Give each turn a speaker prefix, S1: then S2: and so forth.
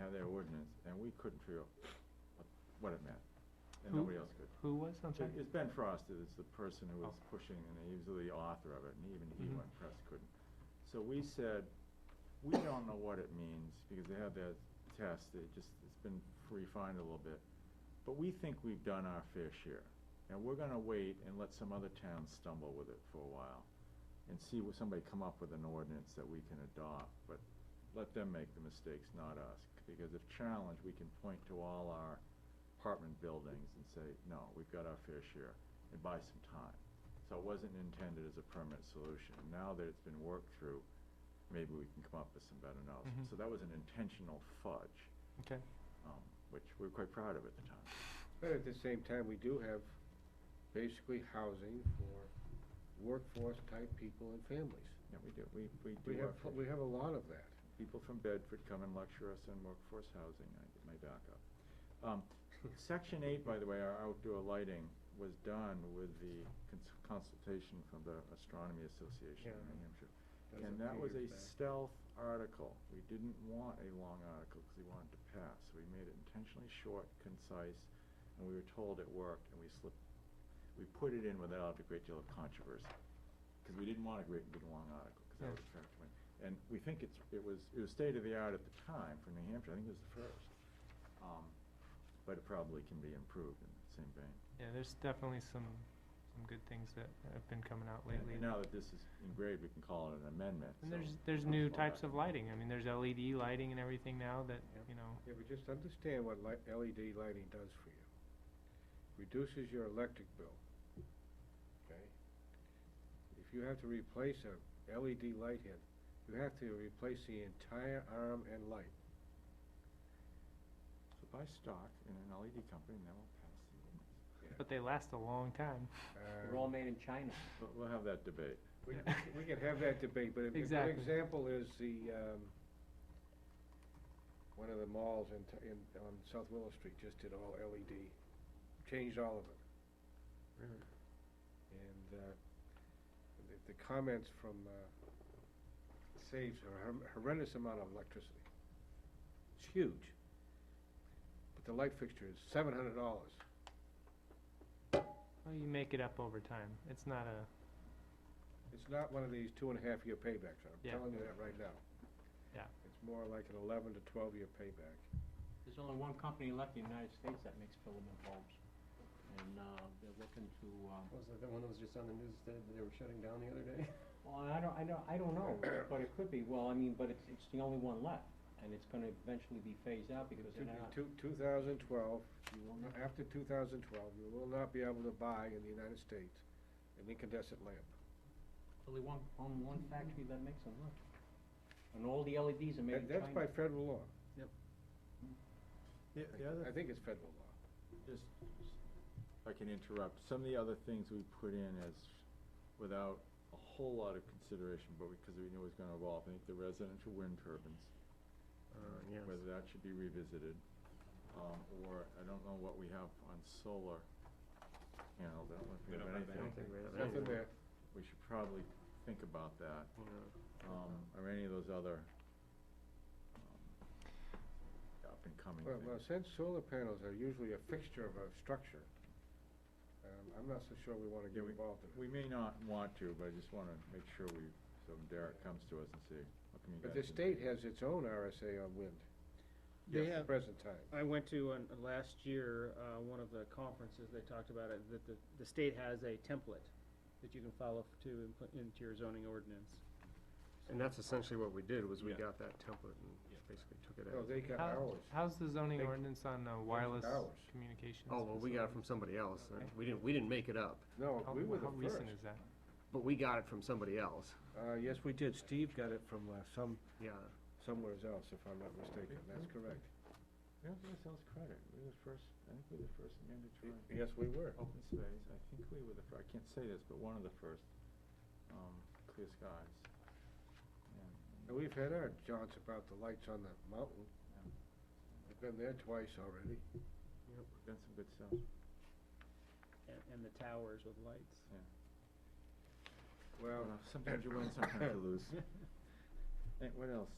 S1: have their ordinance, and we couldn't figure out what- what it meant, and
S2: Who-
S1: nobody else could.
S2: Who Oh. was, I'm sorry?
S1: It's Ben Frost, it's the person who was pushing, and he was the author of it, and even he
S2: Mhm.
S1: went press couldn't. So we said, we don't know what it means, because they had that test, it just, it's been refined a little bit. But we think we've done our fair share, and we're gonna wait and let some other towns stumble with it for a while, and see what, somebody come up with an ordinance that we can adopt, but let them make the mistakes, not us. Because if challenged, we can point to all our apartment buildings and say, no, we've got our fair share, and buy some time. So it wasn't intended as a permanent solution. Now that it's been worked through, maybe we can come up with some better notes.
S3: Mm-hmm.
S2: Mhm.
S1: So that was an intentional fudge,
S2: Okay.
S1: um, which we were quite proud of at the time.
S3: But at the same time, we do have basically housing for workforce-type people and families.
S1: Yeah, we do, we, we
S3: We
S1: do
S3: have,
S1: our fair
S3: we have a lot of that.
S1: people from Bedford come and lecture us on workforce housing, I get my back up. Um, section eight, by the way, our outdoor lighting was done with the cons- consultation from the Astronomy Association in
S3: Yeah.
S1: New Hampshire.
S3: That's
S1: And that
S3: few
S1: was a
S3: years back.
S1: stealth article, we didn't want a long article, cause we wanted to pass, so we made it intentionally short, concise, and we were told it worked, and we slipped, we put it in without a great deal of controversy, cause we didn't want a great, big, long article, cause that
S2: Yeah.
S1: was attractive. And we think it's, it was, it was state of the art at the time for New Hampshire, I think it was the first, um, but it probably can be improved in the same vein.
S2: Yeah, there's definitely some, some good things that have been coming out
S1: And-
S2: lately.
S1: And now that this is engraved, we can call it an amendment,
S2: And
S1: so
S2: there's, there's
S1: that's
S2: new
S1: why
S2: types
S1: I-
S2: of lighting. I mean, there's LED lighting and everything now that,
S3: Yep.
S2: you know,
S3: Yeah, but just understand what li- LED lighting does for you. Reduces your electric bill, okay? If you have to replace a LED light head, you have to replace the entire arm and light.
S1: So buy stock in an LED company and then we'll pass the ordinance.
S2: but they last a long time.
S3: Uh,
S4: They're all made in China.
S1: But we'll have that debate.
S3: We, we can have that debate, but a a good
S2: Exactly.
S3: example is the, um, one of the malls in, t- in, on South Willow Street just did all LED, changed all of it. And, uh, the, the comments from, uh, saves a hor- horrendous amount of electricity. It's huge. But the light fixture is seven hundred dollars.
S2: Well, you make it up over time. It's not a,
S3: It's not one of these two and a half year paybacks, I'm
S2: Yeah.
S3: telling you that right now.
S2: Yeah.
S3: It's more like an eleven to twelve year payback.
S4: There's only one company left in the United States that makes filament bulbs. And, uh, they're looking to, um,
S5: Was that the one that was just on the news that they were shutting down the other day?
S4: well, I don't, I don't, I don't know, but it could be, well, I mean, but it's, it's the only one left. And it's gonna eventually be phased out because they're not,
S3: Two, two thousand twelve,
S4: you will not,
S3: after two thousand twelve, you will not be able to buy in the United States an incandescent lamp.
S4: only one, on one factory that makes them left. And all the LEDs are made in
S3: That-
S4: China.
S3: That's by federal law.
S1: The,
S3: I
S1: the other,
S3: I think it's federal law.
S1: just, if I can interrupt, some of the other things we put in as, without a whole lot of consideration, but because we knew it was gonna evolve, I think the residential wind turbines.
S5: Uh, yes.
S1: Whether that should be revisited, um, or I don't know what we have on solar panels, I don't know if we have anything.
S5: I don't think we have
S3: It's
S5: anything.
S3: in there.
S1: We should probably think about that,
S5: Yeah.
S1: um, or any of those other, um, up and coming
S3: Well, well,
S1: things.
S3: since solar panels are usually a fixture of a structure, um, I'm not so sure we wanna
S1: Yeah,
S3: get
S1: we-
S3: involved in it.
S1: We may not want to, but I just wanna make sure we, so when Derek comes to us and say, what can you guys?
S3: But the
S1: do?"
S3: state has its own RSA on wind.
S6: They
S3: at the
S6: have-
S3: Present time.
S6: I went to, an- last year, uh, one of the conferences, they talked about it, that the, the state has a template that you can follow to input into your zoning ordinance.
S5: And that's essentially what we did, was we
S6: Yeah.
S5: got that template and basically took it
S3: No,
S5: out.
S3: they got
S2: How-
S3: ours.
S2: how's the zoning
S3: They-
S2: ordinance on uh, wireless
S3: ours.
S2: communications?
S5: Oh, well, we got it
S2: facility?
S5: from somebody else. Uh,
S2: Okay.
S5: We didn't, we didn't make it up,
S3: No,
S2: How-
S3: we were the
S2: How
S3: first.
S2: recent is that?
S5: but we got it from somebody else.
S3: Uh, yes, we did. Steve got it from, uh, some,
S5: Yeah.
S3: somewhere else, if I'm not mistaken. That's correct.
S1: We don't give ourselves credit, we were the first, I think we were the first mandatory
S3: Yes, we were.
S1: open space, I think we were the fir-, I can't say this, but one of the first, um, clear skies.
S3: And we've had our jaunts about the lights on the mountain. We've been there twice already.
S1: We've Done some good stuff.
S6: And, and the towers with lights.
S3: Well,
S1: Well, Sometimes you win, sometimes you lose. Eh, what else?